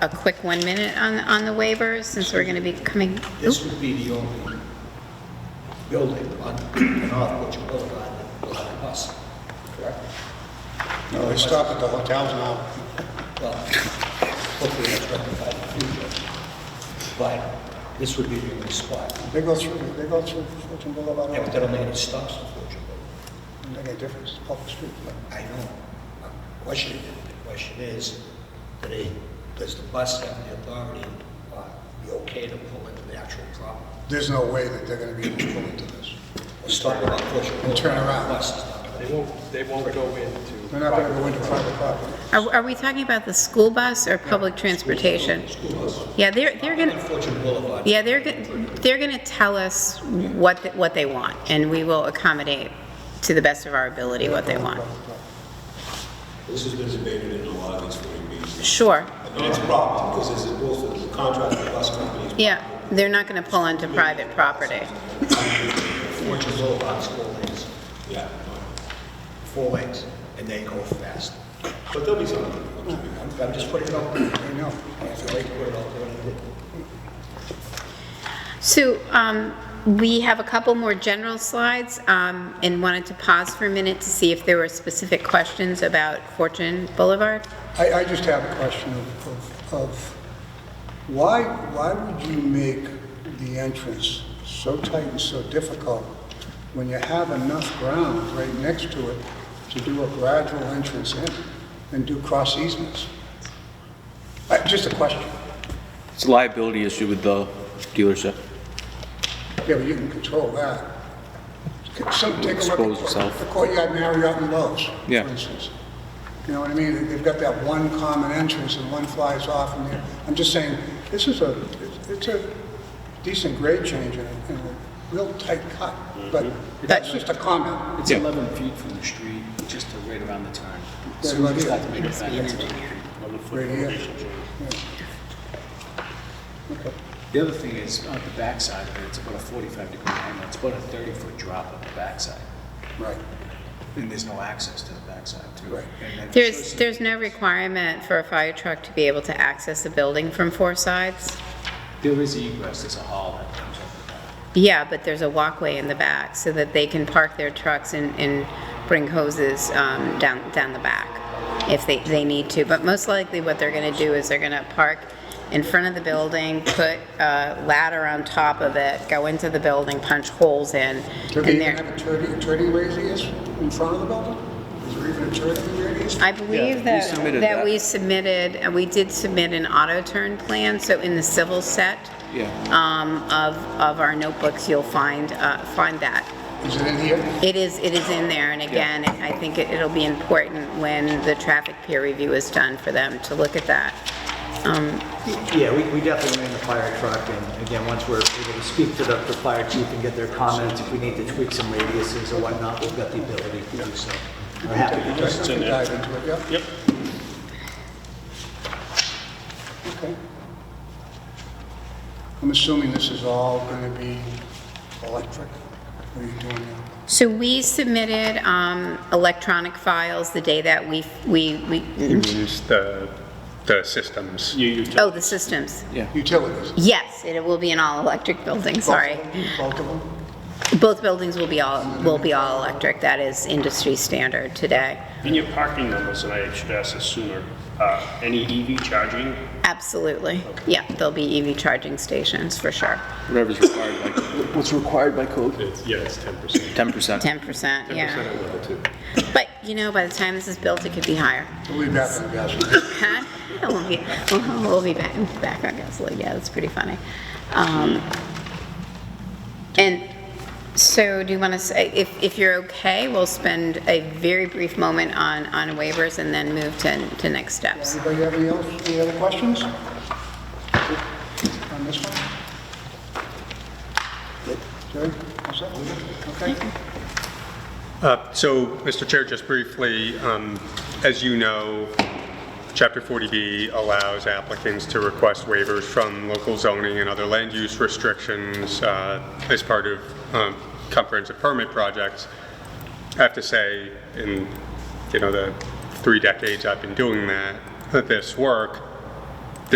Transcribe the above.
a quick one minute on, on the waivers, since we're going to be coming, This would be the only building on North Butcher Boulevard that will have a bus, correct? No, they stop at the hotels now. Well, hopefully that's rectified in the future. But this would be the only spot. They go through, they go through Fulton Boulevard, Yeah, but it that only any stops on Butcher Boulevard. doesn't make any difference, it's a public street. I know. The Question, the question is, do they, does the bus have the authority, uh, be okay to pull into the actual property? There's no way that they're gonna be able to pull into this. Or stop on Butcher Boulevard? turn around. The Bus is not gonna- They won't, they won't go into. They're not gonna go into private property. are, are we talking about the school bus or public transportation? Yeah, they're, they're going to, Butcher Boulevard. yeah, they're, go- they're going to tell us what, th- what they want, and we will accommodate to the best of our ability what they want. This has been debated in a lot of these 40Bs. Sure, And it's a problem, because as a both of the contract with bus companies, yeah, they're not going to pull into private property. Butcher Boulevard's four lanes, yeah. four lanes, and they go fast. But there'll be something. I'm just putting it out there. I know. If you like to put it out there, and it- So um, we have a couple more general slides um, and wanted to pause for a minute to see if there were specific questions about Fortune Boulevard. I, I just have a question of, of- of, why, why would you make the entrance so tight and so difficult when you have enough ground right next to it to do a gradual entrance in and do cross easements? Uh, Just a question. It's a liability issue with the dealership. Yeah, but you can control that. Some, take a Expose look at yourself. the Courtyard Marriott and Lowe's, for Yeah. instance. You know what I mean? They've got that one common entrance and one flies off and there. I'm just saying, this is a, it's- it's a decent grade change and a, and a real tight cut, but that's just a comment. It's Yeah. 11 feet from the street, just to right around the turn. Yeah, So we right just here. have to make it back. Right here. The other thing is, on the backside of it, it's about a 45 degree angle, it's about a 30 foot drop on the backside. Right. And there's no access to the backside too. Right. And then- There's, there's no requirement for a fire truck to be able to access a building from four sides. There is egress, there's a hall that comes up the back. Yeah, but there's a walkway in the back so that they can park their trucks and, and bring hoses um, down, down the back if they, they need to. But most likely what they're gonna do is they're gonna park in front of the building, put a ladder on top of it, go into the building, punch holes in, Do and they even they're. have a turning, turning radius in front of the building? Is there even a turning radius? I Yeah, believe we that, submitted that that. we submitted, and we did submit an auto turn plan, so in the civil set Yeah. um, of, of our notebooks, you'll find, uh, find that. Is it in here? It is, it is in there, and again, I think it- it'll be important when the traffic peer review is done for them to look at that. Yeah, we, we definitely ran the fire truck, and again, once we're able to speak to the, the fire chief and get their comments, if we need to tweak some radiuses or whatnot, we've got the ability to do so. I'm happy to do so. Just dive into it, yeah? Yep. Okay. I'm assuming this is all going to be electric? What are you doing now? So we submitted um, electronic files the day that we, we, we, means the, the systems. oh, the systems. Utilities? Yes, it will be an all-electric building, sorry. Both of them? Both buildings will be all, will be all electric, that is industry standard today. In your parking numbers, and I should ask this sooner, uh, any EV charging? Absolutely, yeah, there'll be EV charging stations for sure. Whatever's required by. What's required by code? It's, yeah, it's 10%. 10%. 10%, yeah. level two. But, you know, by the time this is built, it could be higher. We'll be back on the gas. Huh? We'll be, we'll- we'll be back, back on gasoline, yeah, that's pretty funny. Um, And so do you want to say, if, if you're okay, we'll spend a very brief moment on, on waivers and then move to, to next steps. Anybody have any else, any other questions? On this one? Jerry, what's that? Okay. Uh, So, Mr. Chair, just briefly, um, as you know, Chapter 40B allows applicants to request waivers from local zoning and other land use restrictions uh, as part of um, comprehensive permit projects. I have to say, in, you know, the three decades I've been doing that, this work,